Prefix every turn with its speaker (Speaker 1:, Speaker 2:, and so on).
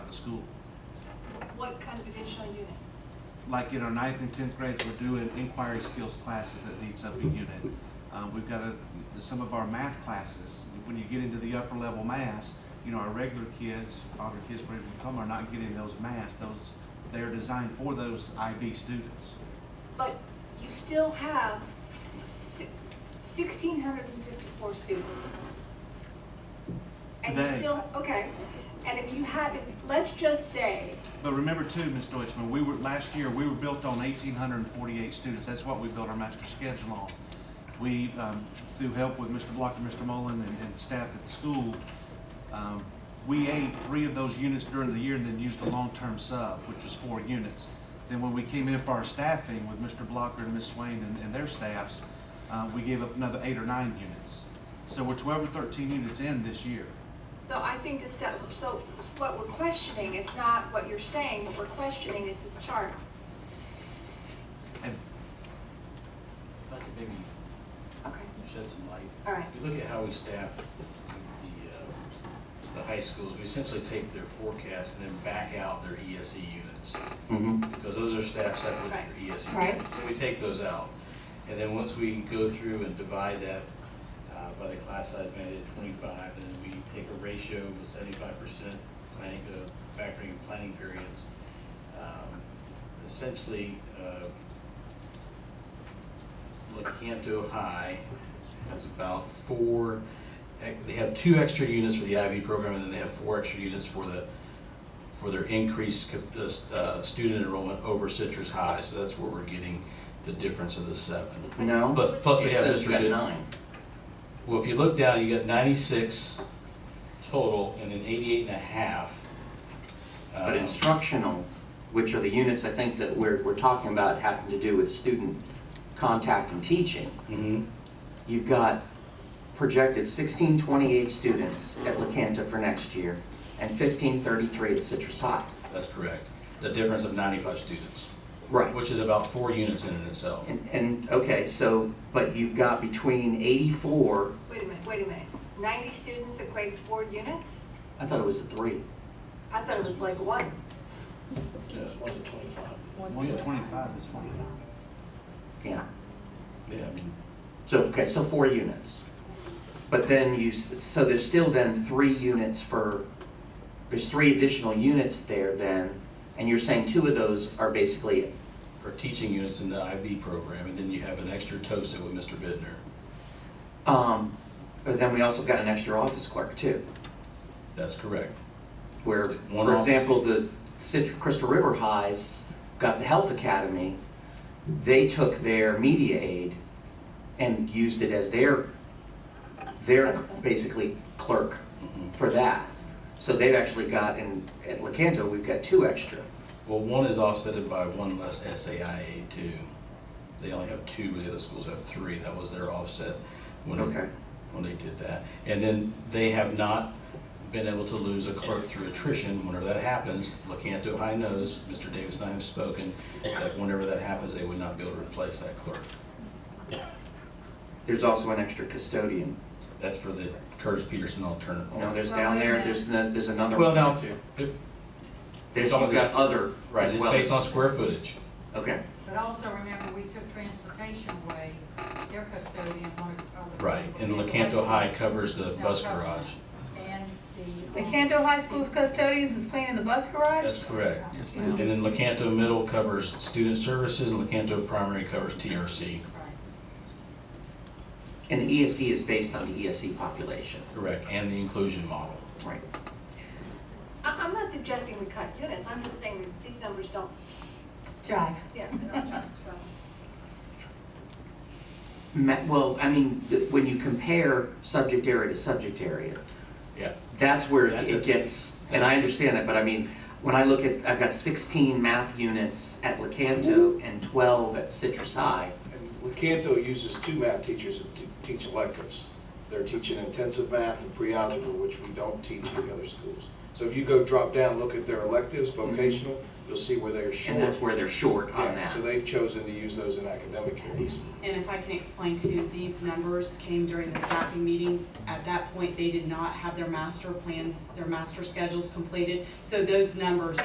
Speaker 1: the school.
Speaker 2: What kind of additional units?
Speaker 1: Like in our ninth and tenth grades, we're doing inquiry skills classes that needs up a unit. Uh, we've got a, some of our math classes, when you get into the upper level math, you know, our regular kids, other kids where we come are not getting those math, those, they're designed for those IB students.
Speaker 2: But you still have sixteen hundred and fifty-four students. And you
Speaker 1: Today.
Speaker 2: still, okay, and if you had, if- let's just say,
Speaker 1: But remember too, Ms. Deutschman, we were, last year, we were built on eighteen hundred and forty-eight students, that's what we built our master schedule on. We, um, through help with Mr. Block and Mr. Mullen and, and staff at the school, um, we ate three of those units during the year and then used a long-term sub, which was four units. Then when we came in for our staffing with Mr. Blocker and Ms. Swain and, and their staffs, uh, we gave up another eight or nine units. So we're twelve or thirteen units in this year.
Speaker 2: so I think this stuff, so what we're questioning is not what you're saying, what we're questioning is this chart.
Speaker 1: And
Speaker 3: If I could maybe
Speaker 2: Okay,
Speaker 3: shed some light.
Speaker 2: all right,
Speaker 3: If you look at how we staff the, uh, the high schools, we essentially take their forecast and then back out their ESE units. Because those are staffed separately
Speaker 2: Right.
Speaker 3: for ESE.
Speaker 2: Right.
Speaker 3: E units. So we take those out. And then once we go through and divide that uh, by the class size made at 25, and we take a ratio of 75% planning, uh, factoring and planning periods. um, Essentially, uh, Lecanto High has about four, they have two extra units for the IB program, and then they have four extra units for the, for their increased uh, student enrollment over Citrus High, so that's where we're getting the difference of the seven.
Speaker 4: No.
Speaker 3: Plus, plus we
Speaker 4: It
Speaker 3: have
Speaker 4: says
Speaker 3: Mr.
Speaker 4: got
Speaker 3: Good.
Speaker 4: nine.
Speaker 3: Well, if you look down, you got ninety-six total, and then eighty-eight and a half.
Speaker 4: But Uh-huh.
Speaker 3: um,
Speaker 4: instructional, which are the units I think that we're, we're talking about having to do with student contact and teaching,
Speaker 3: mhm.
Speaker 4: you've got projected sixteen twenty-eight students at LaCanta for next year and fifteen thirty-three at Citrus High.
Speaker 3: that's correct. The difference of ninety-five students,
Speaker 4: Right.
Speaker 3: which is about four units in and itself.
Speaker 4: And, and, okay, so, but you've got between eighty-four,
Speaker 2: wait a minute, wait a minute. Ninety students equates four units?
Speaker 4: I thought it was a three.
Speaker 2: I thought it was like one.
Speaker 3: Yeah, it's one to twenty-five.
Speaker 1: one to twenty-five is fine.
Speaker 4: Yeah.
Speaker 3: Yeah, I mean,
Speaker 4: So, okay, so four units. But then you, s- so there's still then three units for, there's three additional units there then, and you're saying two of those are basically,
Speaker 3: for teaching units in the IB program, and then you have an extra TOSA with Mr. Bidner.
Speaker 4: um, but then we also got an extra office clerk too,
Speaker 3: That's correct.
Speaker 4: where,
Speaker 3: One
Speaker 4: for
Speaker 3: off-
Speaker 4: example, the Cit- Crystal River Highs got the Health Academy, they took their media aid and used it as their, their basically clerk
Speaker 3: Mhm.
Speaker 4: for that. So they've actually got, in, at Lecanto, we've got two extra.
Speaker 3: Well, one is offset by one less SAIA too. They only have two, where the other schools have three. That was their offset when,
Speaker 4: Okay.
Speaker 3: when they did that. And then they have not been able to lose a clerk through attrition. Whenever that happens, LaCanto High knows, Mr. Davis and I have spoken, that whenever that happens, they would not be able to replace that clerk.
Speaker 4: There's also an extra custodian.
Speaker 3: That's for the Curtis Peterson alternate.
Speaker 4: You know, there's
Speaker 2: Well,
Speaker 4: down
Speaker 2: wait a
Speaker 4: there,
Speaker 2: minute.
Speaker 4: there's, no- there's another
Speaker 3: Well,
Speaker 4: one
Speaker 3: now,
Speaker 4: down too.
Speaker 3: it-
Speaker 4: There's,
Speaker 3: it's all
Speaker 4: you've got
Speaker 3: this-
Speaker 4: other
Speaker 3: right,
Speaker 4: as
Speaker 3: it's
Speaker 4: well.
Speaker 3: based on
Speaker 4: as-
Speaker 3: square footage.
Speaker 4: Okay,
Speaker 5: But also remember, we took transportation away, their custodian wanted to cover. the
Speaker 3: Right, and
Speaker 5: people.
Speaker 3: LaCanto High covers the
Speaker 5: It's not
Speaker 3: bus
Speaker 5: covered.
Speaker 3: garage.
Speaker 5: And the.
Speaker 6: The Canto High School's custodians is cleaning the bus garage?
Speaker 3: That's correct. And then LaCanto Middle covers student services, and LaCanto Primary covers TRC.
Speaker 5: Right.
Speaker 4: and the ESE is based on the ESE population,
Speaker 3: Correct. And the inclusion model.
Speaker 4: right?
Speaker 2: I, I'm not suggesting we cut units, I'm just saying that these numbers don't,
Speaker 6: Jive.
Speaker 2: yeah, they don't jive, so.
Speaker 4: Ma- Well, I mean, the- when you compare subject area to subject area,
Speaker 3: Yeah.
Speaker 4: that's where
Speaker 3: That's
Speaker 4: it
Speaker 3: it.
Speaker 4: gets, and I understand that, but I mean, when I look at, I've got sixteen math units at Lecanto and twelve at Citrus High.
Speaker 7: And Lecanto uses two math teachers to t- teach electives. They're teaching intensive math and pre-algebra, which we don't teach at the other schools. So So if you go drop down, look at their electives, vocational, you'll see where they're short.
Speaker 4: And that's where they're short on
Speaker 7: Yeah,
Speaker 4: that.
Speaker 7: so they've chosen to use those in academic areas.
Speaker 8: And if I can explain to you, these numbers came during the staffing meeting. At that point, they did not have their master plans, their master schedules completed. So those numbers